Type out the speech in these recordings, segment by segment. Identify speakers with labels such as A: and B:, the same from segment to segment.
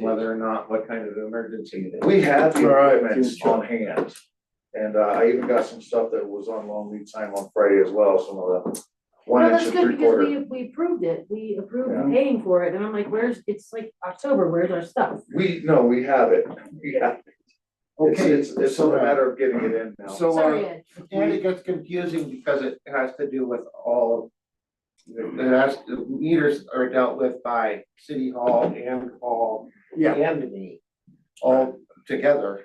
A: whether or not, what kind of emergency it is.
B: We had the improvements
A: Sure.
B: on hand. And uh, I even got some stuff that was on long lead time on Friday as well, some of the
C: Well,
B: one inch
C: that's
B: and
C: good
B: three
C: because
B: quarter.
C: we, we approved it, we
B: Yeah.
C: approved paying for it, and I'm like, where's, it's like October, where's our stuff?
B: We, no, we have it, we have, it's,
D: Okay,
B: it's, it's a
D: so-
B: matter of getting it in now.
D: So,
C: Sorry,
D: uh,
C: Ed,
D: and it gets confusing because it has to do with all. It has, the meters are dealt with by city hall and hall
E: Yeah,
D: and me, all together.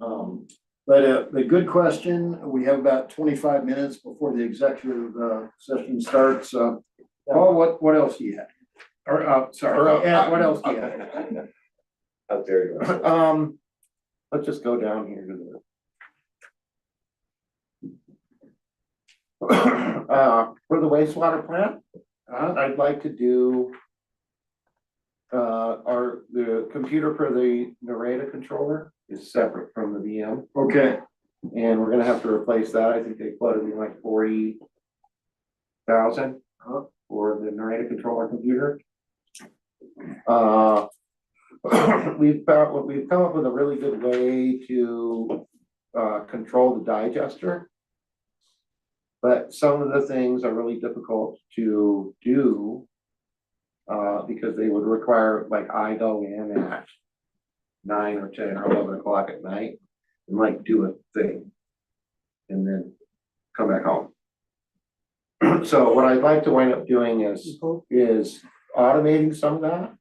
E: um, but uh, the good question, we have about twenty-five minutes before the executive uh, session starts, uh. Paul, what, what else do you have? Or, uh,
D: Or, uh,
E: sorry, Ed, what else do you have?
B: Out there you go.
D: Um, let's just go down here to the. Uh, for the wastewater plant, uh, I'd like to do. Uh, our, the computer for the Narada controller is separate from the VM.
E: Okay,
D: And we're gonna have to replace that, I think they quoted me like forty thousand for the narrator controller computer. Uh, we've found, we've come up with a really good way to, uh, control the digester. But some of the things are really difficult to do. Uh, because they would require, like, I go in at nine or ten or eleven o'clock at night and like do a thing. And then come back home. So what I'd like to wind up doing is, is automating some of that.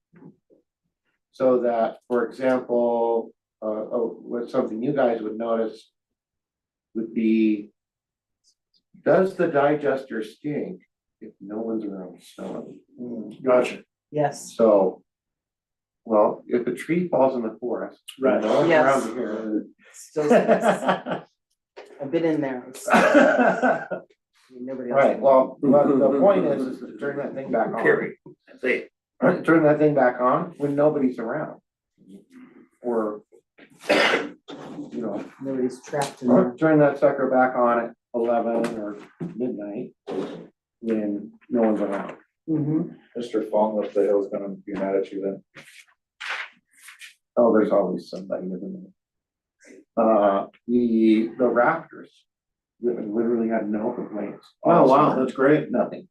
D: So that, for example, uh, oh, what something you guys would notice would be. Does the digester stink if no one's around smelling?
E: Hmm, gotcha,
F: Yes.
D: So. Well, if a tree falls in the forest.
E: Right.
D: No one's
F: Yes.
D: around here.
F: Still, stinks. I've been in there. It's- Nobody else.
D: Right, well, but the point is, is to turn that thing back on. Period. Turn that thing back on when nobody's around. Or, you know,
F: Nobody's trapped in
D: or
F: there.
D: turn that sucker back on at eleven or midnight when no one's around.
F: Mhm.
B: Mr. Fong up the hill's gonna be mad at you then.
D: Oh, there's always somebody living there. Uh, the, the Raptors li- literally had no complaints.
E: oh, wow, that's great,
D: Nothing.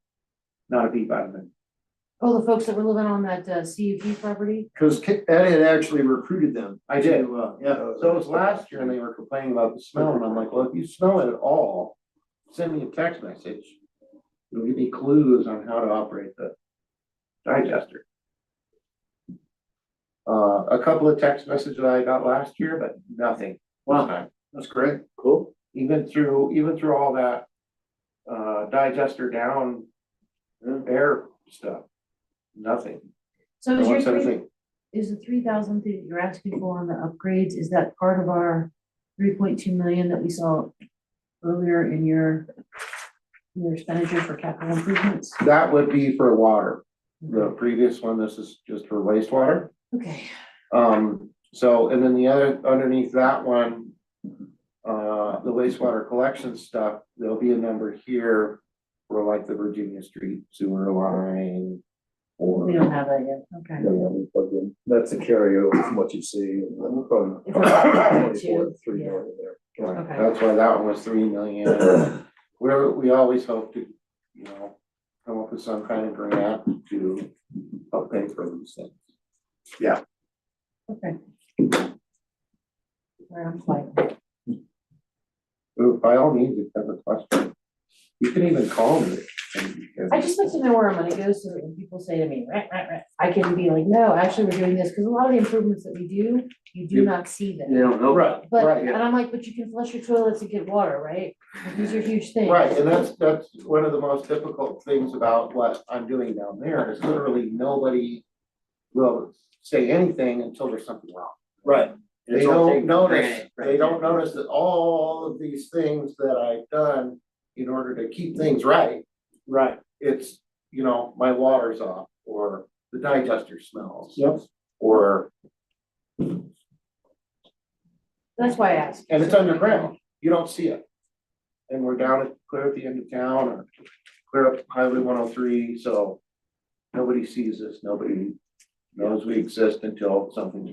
D: Not a peep out of them.
C: oh, the folks that were living on that uh, CUP property,
E: because Ed had actually recruited them.
D: I did.
E: to, uh, Yeah,
D: So it was last year and they were complaining about the smell and I'm like, well, if you smell it at all, send me a text message. It'll give me clues on how to operate the digester. Uh, a couple of text messages I got last year, but nothing.
E: Wow. that's great,
B: Cool.
D: Even through, even through all that, uh, digester down uh, air stuff, nothing.
C: so
D: No
C: is your
D: one said a
C: three,
D: thing.
C: is the three thousand that you're asking for on the upgrades, is that part of our three point two million that we saw earlier in your your expenditure for capital improvements?
D: That would be for water. The previous one, this is just for wastewater.
C: Okay,
D: Um, so, and then the other, underneath that one, uh, the wastewater collection stuff, there'll be a number here for like the Virginia Street sewer line or.
C: we don't have that yet, okay.
B: That's a carryover from what you see.
C: If we're up to two, yeah.
D: Right,
C: Okay.
D: That's why that one was three million. We're, we always hope to, you know, come up with some kind of grant to help pay for these things.
C: Okay. All right, I'm fine.
D: Ooh, By all means, if you have a question, you can even call me. and- and-
C: I just like to know where our money goes, so that when people say to me, "Rah, rah, rah," I can be like, no, actually, we're doing this, because a lot of the improvements that we do, you do
D: You-
C: not see them.
E: they don't know.
D: Right,
C: But,
D: right, yeah.
C: and I'm like, but you can flush your toilets and get water, right? Like, These are huge things.
D: Right, and that's, that's one of the most difficult things about what I'm doing down there is literally nobody will say anything until there's something wrong.
E: Right.
D: They don't notice, they don't notice that all of these things that I've done in order to keep things right,
E: Right,
D: it's, you know, my water's off or the digester smells.
E: Yep.
D: Or,
C: That's why I asked.
D: and it's underground, you don't see it. And we're down at, clear at the end of town or clear up Highway one oh three, so nobody sees this, nobody knows we exist until something's